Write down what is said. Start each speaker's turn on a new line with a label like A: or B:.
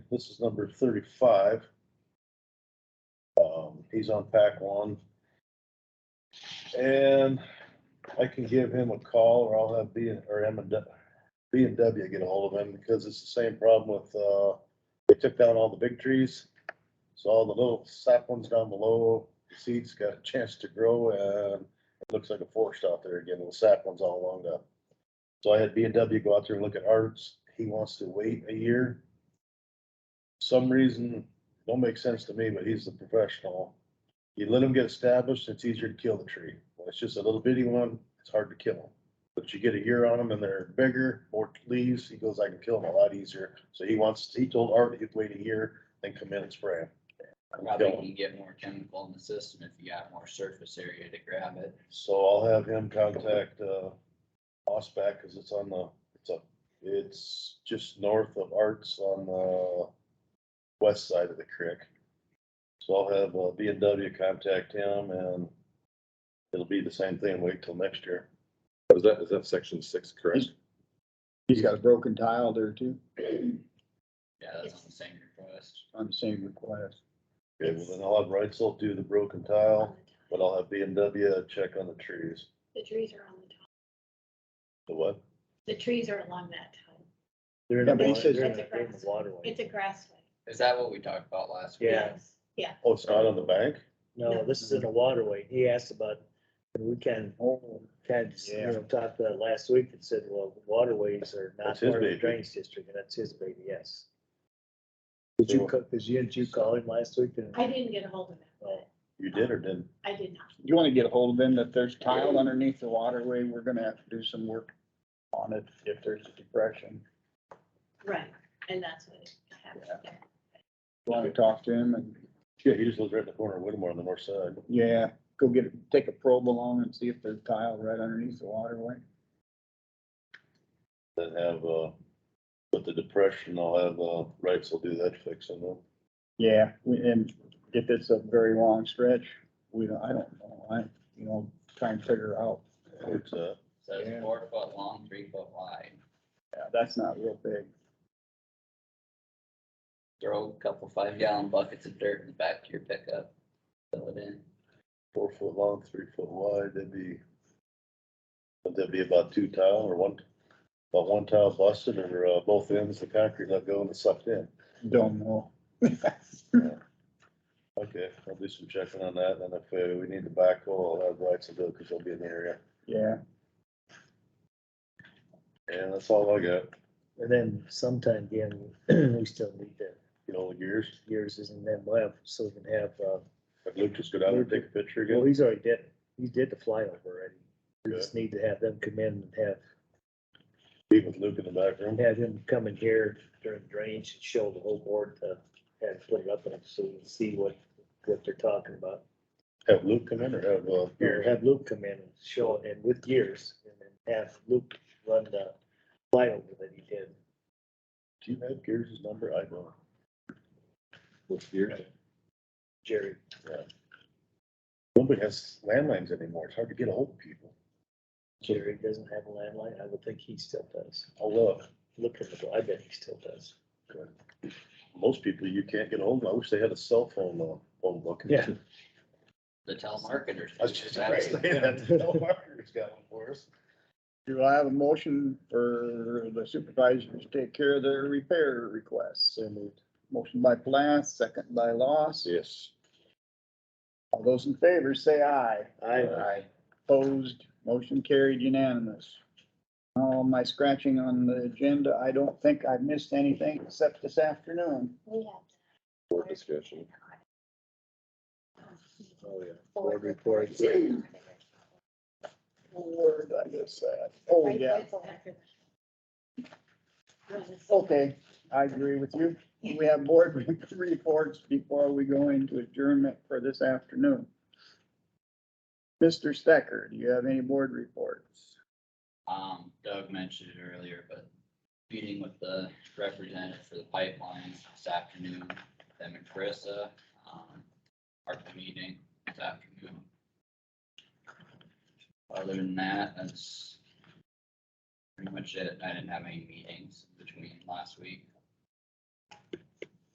A: This is number thirty-five. Um, he's on pack one. And I can give him a call or I'll have B and, or M and W, B and W get ahold of him because it's the same problem with, uh, they took down all the big trees. So all the little sap ones down below, the seeds got a chance to grow and it looks like a forest out there again, with sap ones all along up. So I had B and W go out there and look at ours. He wants to wait a year. Some reason, don't make sense to me, but he's the professional. You let him get established, it's easier to kill the tree. When it's just a little bitty one, it's hard to kill them. But you get a year on them and they're bigger, more leaves, he goes, I can kill them a lot easier. So he wants, he told Art he'd wait a year, then come in and spray them.
B: Probably can get more chemical in the system if you got more surface area to grab it.
A: So I'll have him contact, uh, Osback, cause it's on the, it's up, it's just north of Arts on the west side of the creek. So I'll have, uh, B and W contact him and it'll be the same thing, wait till next year.
C: Oh, Is that, is that section six correct?
D: He's got a broken tile there too,
B: Yeah, that's on the same request.
D: on the same request.
A: Okay, well then I'll have Reitzel do the broken tile, but I'll have B and W check on the trees.
E: The trees are on the top.
A: The what?
E: The trees are along that top.
F: They're in
D: Yeah, but he
F: the-
D: says-
F: they're in the- they're in the
E: It's
F: waterway.
E: a grassway.
B: Is that what we talked about last week?
F: Yeah.
E: Yes. Yeah,
A: Oh, it's not on the bank?
F: No, this is in the waterway. He asked about, and we kind of, kind of, you know, talked about it last week and said, well, waterways are not
A: That's his
F: part of the
A: baby.
F: drainage district, and that's his baby, yes. Did
A: So-
F: you, co- did you, did you call him last week? and-
E: I didn't get a hold of it, but
A: You did or didn't?
E: I did not.
D: You wanna get a hold of him that there's tile underneath the waterway, we're gonna have to do some work on it if there's a depression.
E: Right, and that's what happened.
D: You Wanna talk to him and,
A: Yeah, he just lives right in the corner of Whittemore on the north side.
D: yeah, go get, a- take a probe along and see if there's tile right underneath the waterway.
A: that have, uh, with the depression, I'll have, uh, rights will do that fixing them.
D: Yeah, we- and if it's a very long stretch, we don't, I don't know, I, you know, try and figure out.
A: It's, uh,
B: So it's
D: Yeah.
B: four foot long, three foot wide.
D: Yeah, that's not real big.
B: Throw a couple five gallon buckets of dirt in the back of your pickup. Fill it in.
A: four foot long, three foot wide, that'd be, would that be about two tile or one, about one tile busted or, uh, both ends, the concrete let go and it's sucked in?
D: Don't know.
A: Okay, I'll do some checking on that, and if uh, we need the backhoe, I'll have rights to do it, cause they'll be in the area.
D: Yeah,
A: And that's all I got,
F: And then sometime again, we still need the
A: you know, the gears,
F: years in them left, so we can have, uh,
A: if Luke just go down there and take a picture
F: Well,
A: again,
F: he's already did, he did the flyover already. We just need to have them come in and have,
A: meet with Luke in the back room.
F: have him come in here during drainage and show the whole board to have it put it up and so we can see what, what they're talking about.
A: Have Luke come in or have, uh,
F: Or
A: gears?
F: have Luke come in and show it and with gears and then have Luke run the flyover that he did.
A: Do you have Gears' number? I don't.
C: What's here?
F: Jerry,
A: Nobody has landlines anymore. It's hard to get a hold of people.
F: Jerry doesn't have a landline. I would think he still does.
A: I'll love.
F: Look in the, I bet he still does.
A: Most people you can't get a hold of. I wish they had a cell phone, uh, phone book.
F: Yeah.
B: The telemarketers.
A: I was just about to
B: That's-
A: say that. Telemarketer's got one for us.
D: do I have a motion for the supervisors to take care of their repair requests?
F: So moved.
D: Motion by Plath, second by Loss.
A: Yes.
D: All those in favor, say aye.
F: I,
D: Opposed, motion carried unanimous. All my scratching on the agenda, I don't think I've missed anything except this afternoon.
E: We have.
C: Board discussion.
F: oh yeah, board report.
D: Where did I miss that? Oh, yeah,
F: Oh,
D: okay, I agree with you. We have board reports before we go into adjournment for this afternoon. Mr. Stecker, do you have any board reports?
B: Um, Doug mentioned it earlier, but meeting with the representative for the pipelines this afternoon, them and Carissa, um, our meeting this afternoon. Other than that, that's pretty much it. I didn't have any meetings between last week.